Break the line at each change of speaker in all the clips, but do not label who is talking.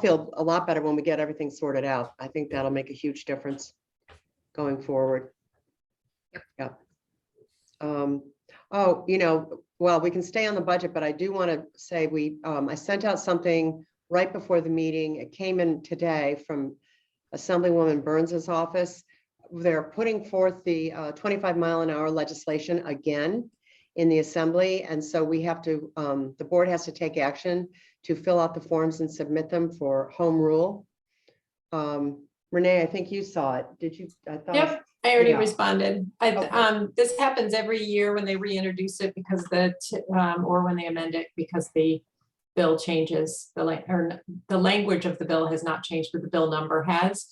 feel a lot better when we get everything sorted out. I think that'll make a huge difference going forward.
Yep.
Yep. Um, oh, you know, well, we can stay on the budget, but I do want to say we, um, I sent out something right before the meeting. It came in today from Assemblywoman Burns's office. They're putting forth the uh, twenty-five mile an hour legislation again in the assembly. And so we have to, um, the board has to take action to fill out the forms and submit them for home rule. Um, Renee, I think you saw it. Did you? I thought I
Yep, I already
Yeah.
responded. I,
Okay.
um, this happens every year when they reintroduce it because the, t- um, or when they amend it because the bill changes, the like, or n- the language of the bill has not changed, but the bill number has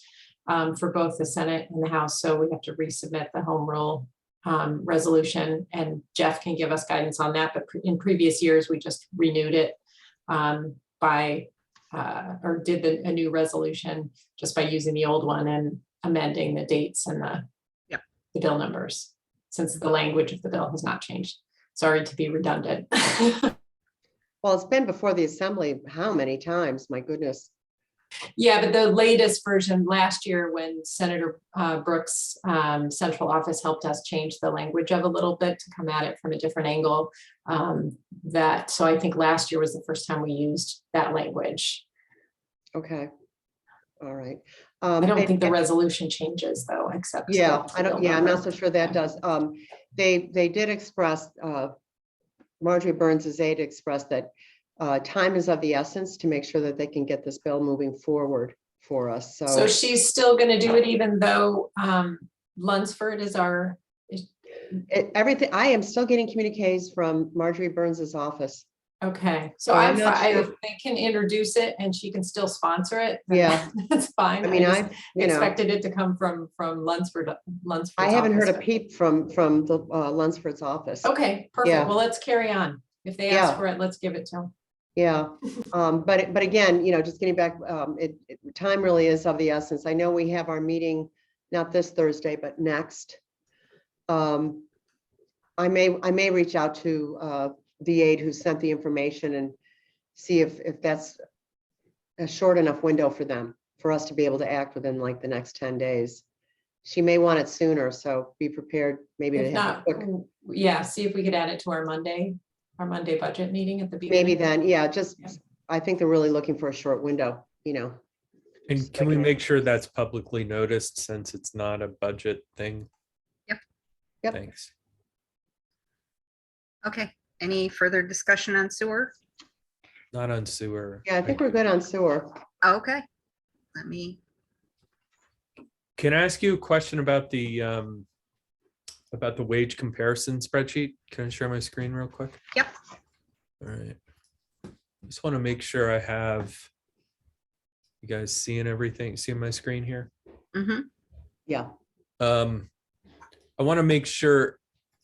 um, for both the Senate and the House. So we have to resubmit the home rule um, resolution and Jeff can give us guidance on that. But pre- in previous years, we just renewed it um, by, uh, or did the, a new resolution just by using the old one and amending the dates and the
Yep.
the bill numbers, since the language of the bill has not changed. Sorry to be redundant.
Well, it's been before the assembly, how many times? My goodness.
Yeah, but the latest version last year when Senator uh, Brooks' um, central office helped us change the language of a little bit to come at it from a different angle. um, That, so I think last year was the first time we used that language.
Okay. All right. Um,
I don't think the resolution changes though, except.
Yeah,
the
I don't,
bill
yeah, I'm not
number.
so sure that does. Um, they, they did express, uh, Marjorie Burns' aide expressed that, uh, time is of the essence to make sure that they can get this bill moving forward for us.
So
So,
she's still gonna do it even though um Lunsford is our, is-
it- everything, I am still getting communiques from Marjorie Burns' office.
okay, so
So I'm
I'm, fi-
not
I-
sure.
if they can introduce it and she can still sponsor it. then
Yeah.
That's fine.
I mean,
just
I, you know.
Expected it to come from from Lunsford, Lunsford.
I haven't heard a peep from, from the uh, Lunsford's office.
Okay,
Yeah.
perfect. Well, let's carry on. If they
Yeah.
ask for it, let's give it to them.
Yeah, um, but, it- but again, you know, just getting back, um, it, it- time really is of the essence. I know we have our meeting, not this Thursday, but next. Um, I may, I may reach out to, uh, the aide who sent the information and see if, if that's a short enough window for them, for us to be able to act within like the next ten days. She may want it sooner, so be prepared maybe to
If
have a
not,
quick.
w- yeah, see if we could add it to our Monday, our Monday budget meeting at the beginning.
Maybe then, yeah, just,
Yeah.
I think they're really looking for a short window, you know.
And
Just
can we
like a-
make sure that's publicly noticed since it's not a budget thing?
Yep.
Yep.
Thanks.
Okay, any further discussion on sewer?
Not on sewer.
Yeah, I think we're good on sewer.
Okay, let me,
Can I ask you a question about the um about the wage comparison spreadsheet? Can I share my screen real quick?
Yep.
All right. Just want to make sure I have you guys seeing everything, seeing my screen here?
mhm,
Yeah,
Um, I want to make sure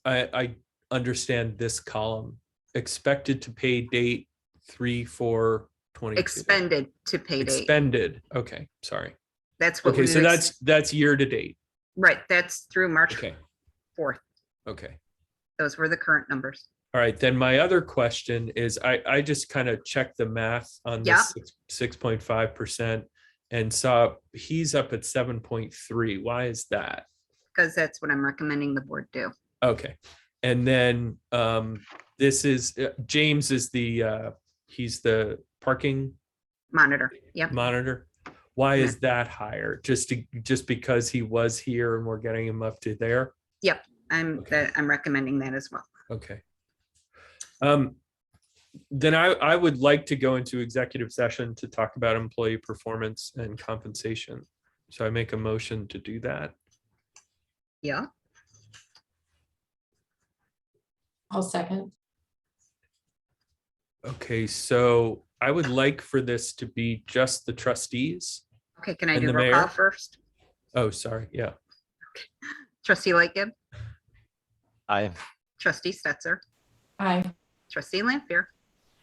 I, I understand this column. Expected to pay date three, four, twenty.
expended to pay date.
Expended, okay, sorry.
That's what we,
Okay, so
would ex-
that's, that's year to date.
right, that's through March
Okay,
4th.
okay.
Those were the current numbers.
All right, then my other question is, I, I just kind of checked the math on
Yeah.
this six point five percent and saw he's up at seven point three. Why is that?
Because that's what I'm recommending the board do.
Okay. And then um this is uh, James is the uh he's the parking
Monitor, yep.
monitor. Why is that higher? Just to just because he was here and we're getting him up to there?
I'm,
Okay.
that, I'm recommending that as well.
Okay. Um then I I would like to go into executive session to talk about employee performance and compensation. So I make a motion to do that.
Yeah,
I'll second.
Okay, so I would like for this to be just the trustees.
okay, can I
And
do
the
roll call
mayor?
first?
Oh, sorry. Yeah.
Trustee Lightgib,
Aye.
trustee Stetser,
Aye.
trustee Lampier.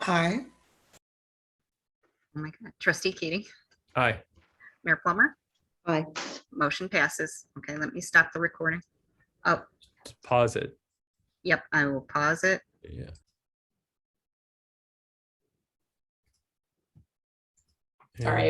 Aye.
Oh my God, trustee Keating,
Aye.
Mayor Plummer,
aye.
motion passes. Okay, let me stop the recording. Oh,
Pause it.
Yep, I will pause it.
Yeah.
All
Yeah.
right.